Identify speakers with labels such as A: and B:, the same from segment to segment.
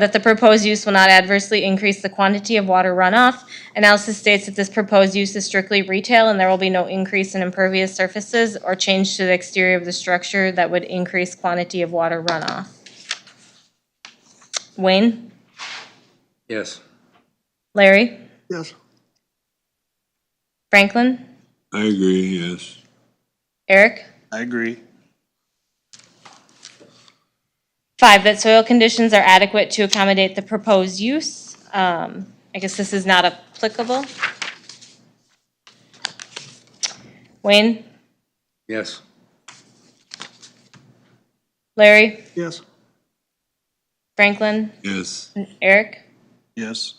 A: that the proposed use will not adversely increase the quantity of water runoff. Analysis states that this proposed use is strictly retail and there will be no increase in impervious surfaces or change to the exterior of the structure that would increase quantity of water runoff. Wayne?
B: Yes.
A: Larry?
C: Yes.
A: Franklin?
D: I agree, yes.
A: Eric?
C: I agree.
A: Five, that soil conditions are adequate to accommodate the proposed use. Um, I guess this is not applicable. Wayne?
B: Yes.
A: Larry?
C: Yes.
A: Franklin?
D: Yes,
A: Eric?
C: Yes.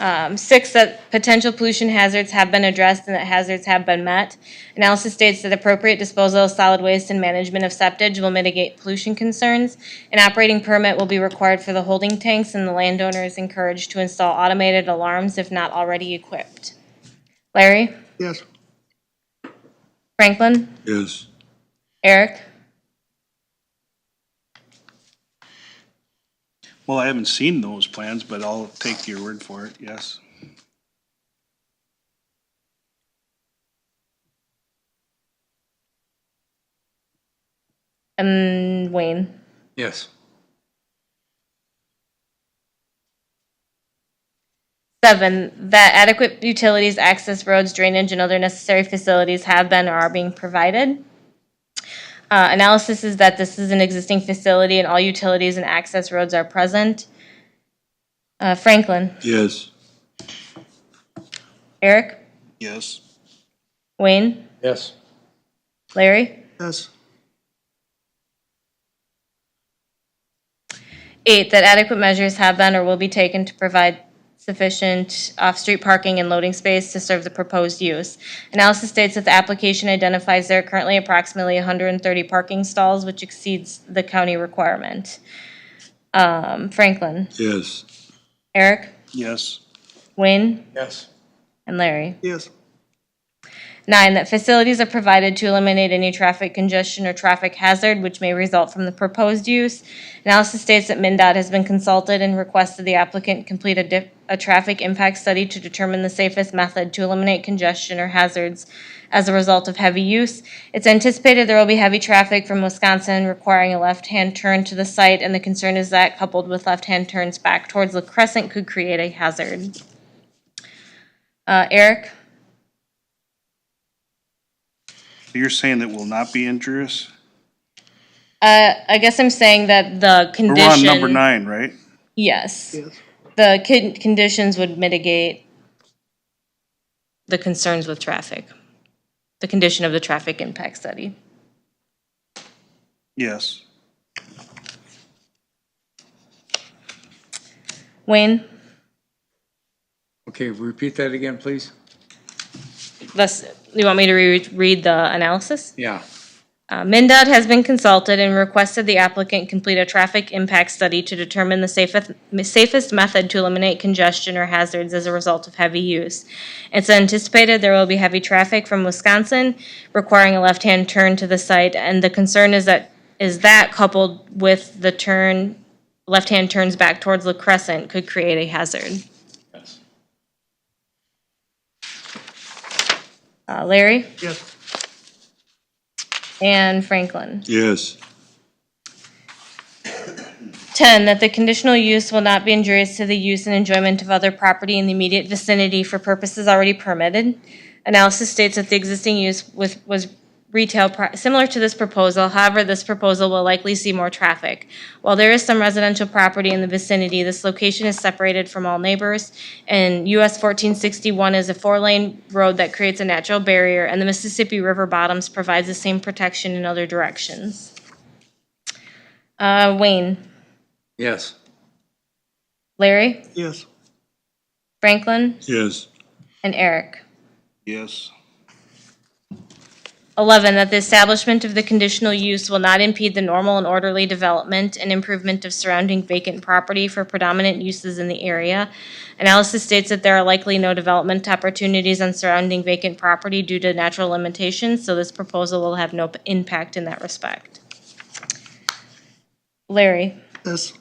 A: Um, Six, that potential pollution hazards have been addressed and that hazards have been met. Analysis states that appropriate disposal of solid waste and management of septage will mitigate pollution concerns. An operating permit will be required for the holding tanks, and the landowner is encouraged to install automated alarms if not already equipped. Larry?
C: Yes.
A: Franklin?
D: yes,
A: Eric?
C: Well, I haven't seen those plans, but I'll take your word for it, yes.
A: And Wayne?
B: Yes.
A: Seven, that adequate utilities, access roads, drainage, and other necessary facilities have been or are being provided. Uh, analysis is that this is an existing facility and all utilities and access roads are present. Uh, Franklin,
D: yes,
A: Eric,
C: Yes.
A: Wayne,
B: Yes.
A: Larry?
C: Yes.
A: Eight, that adequate measures have been or will be taken to provide sufficient off-street parking and loading space to serve the proposed use. Analysis states that the application identifies there are currently approximately 130 parking stalls, which exceeds the county requirement. Um, Franklin,
D: yes,
A: Eric,
C: Yes.
A: Wayne,
B: Yes.
A: and Larry.
C: Yes.
A: Nine, that facilities are provided to eliminate any traffic congestion or traffic hazard which may result from the proposed use. Analysis states that MinDOT has been consulted and requested the applicant complete a dif- a traffic impact study to determine the safest method to eliminate congestion or hazards as a result of heavy use. It's anticipated there will be heavy traffic from Wisconsin requiring a left-hand turn to the site, and the concern is that coupled with left-hand turns back towards La Crescent could create a hazard. Uh, Eric?
C: You're saying that will not be injurious?
A: Uh, I guess I'm saying that the
C: We're
A: condition.
C: on number nine, right?
A: Yes. The con- conditions would mitigate the concerns with traffic, the condition of the traffic impact study.
C: Yes.
A: Wayne,
B: Okay, repeat that again, please?
A: this, you want me to re- read the analysis?
B: Yeah.
A: Uh, MinDOT has been consulted and requested the applicant complete a traffic impact study to determine the safest, safest method to eliminate congestion or hazards as a result of heavy use. It's anticipated there will be heavy traffic from Wisconsin requiring a left-hand turn to the site, and the concern is that, is that coupled with the turn, left-hand turns back towards La Crescent could create a hazard.
B: Yes.
A: Uh, Larry
C: Yes.
A: and Franklin.
D: yes,
A: 10, that the conditional use will not be injurious to the use and enjoyment of other property in the immediate vicinity for purposes already permitted. Analysis states that the existing use with, was retail, pro- similar to this proposal, however, this proposal will likely see more traffic. While there is some residential property in the vicinity, this location is separated from all neighbors, and US 1461 is a four-lane road that creates a natural barrier, and the Mississippi River bottoms provides the same protection in other directions. Uh, Wayne?
B: Yes.
A: Larry,
C: Yes.
A: Franklin,
D: yes,
A: and Eric.
C: Yes.
A: 11, that the establishment of the conditional use will not impede the normal and orderly development and improvement of surrounding vacant property for predominant uses in the area. Analysis states that there are likely no development opportunities on surrounding vacant property due to natural limitations, so this proposal will have no p- impact in that respect. Larry,
C: Yes.